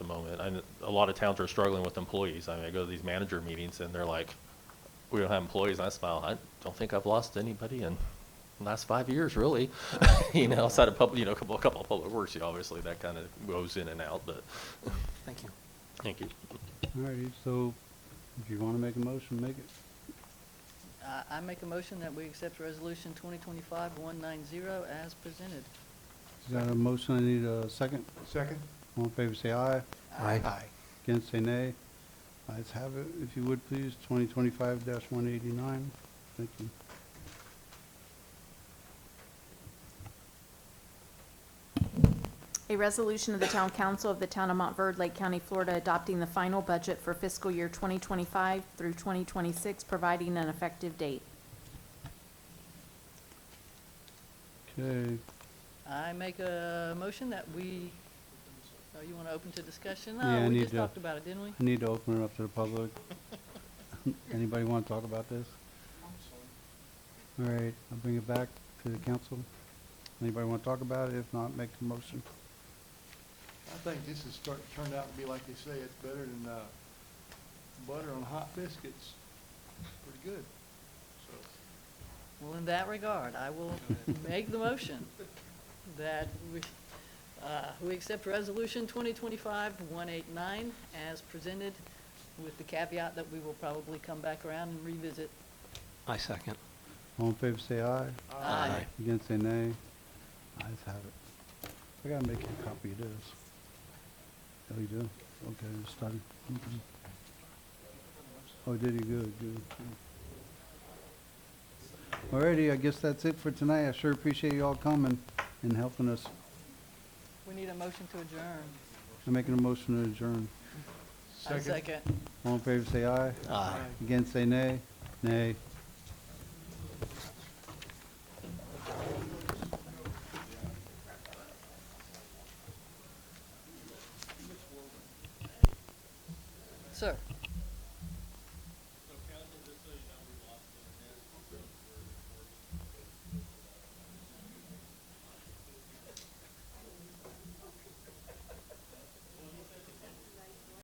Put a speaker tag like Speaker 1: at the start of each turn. Speaker 1: problem. And I kn- a lot of towns are struggling with employees. I mean, I go to these manager meetings and they're like, we don't have employees. And I smile, I don't think I've lost anybody in the last five years, really. You know, outside of public, you know, a couple, a couple of public works, you know, obviously that kind of goes in and out, but
Speaker 2: Thank you.
Speaker 1: thank you.
Speaker 3: All righty, so if you want to make a motion, make it.
Speaker 2: I- I make a motion that we accept Resolution 2025-190 as presented.
Speaker 3: Is that a motion? I need a second.
Speaker 4: Second?
Speaker 3: All in favor, say aye.
Speaker 4: Aye.
Speaker 3: Against, say nay. Ayes have it. If you would, please, 2025-189. Thank you.
Speaker 5: A resolution of the Town Council of the Town of Montverde, Lake County, Florida, adopting the final budget for fiscal year 2025 through 2026, providing an effective date.
Speaker 3: Okay,
Speaker 2: I make a motion that we, oh, you want to open to discussion?
Speaker 3: Yeah, I
Speaker 2: Oh, we
Speaker 3: need
Speaker 2: just
Speaker 3: to-
Speaker 2: talked about it, didn't we?
Speaker 3: I need to open it up to the public. Anybody want to talk about this? All right, I'll bring it back to the council. Anybody want to talk about it? If not, make a motion.
Speaker 4: I think this has start, turned out to be like they say, it's better than, uh, butter on hot biscuits. Pretty good. So,
Speaker 2: Well, in that regard, I will make the motion that we, uh, we accept Resolution 2025-189 as presented with the caveat that we will probably come back around and revisit.
Speaker 6: I second.
Speaker 3: All in favor, say aye.
Speaker 2: Aye.
Speaker 3: Against, say nay. Ayes have it. I gotta make you a copy of this. Oh, you do? Okay, it's done. Okay. Mm-hmm. Oh, did you? Good, good. good. Alrighty, I guess that's it for tonight. I sure appreciate you all coming and helping us.
Speaker 2: We need a motion to adjourn.
Speaker 3: I'm making a motion to adjourn.
Speaker 2: I second.
Speaker 3: All in favor, say aye.
Speaker 6: Aye.
Speaker 3: Against, say nay. Nay.
Speaker 2: Sir?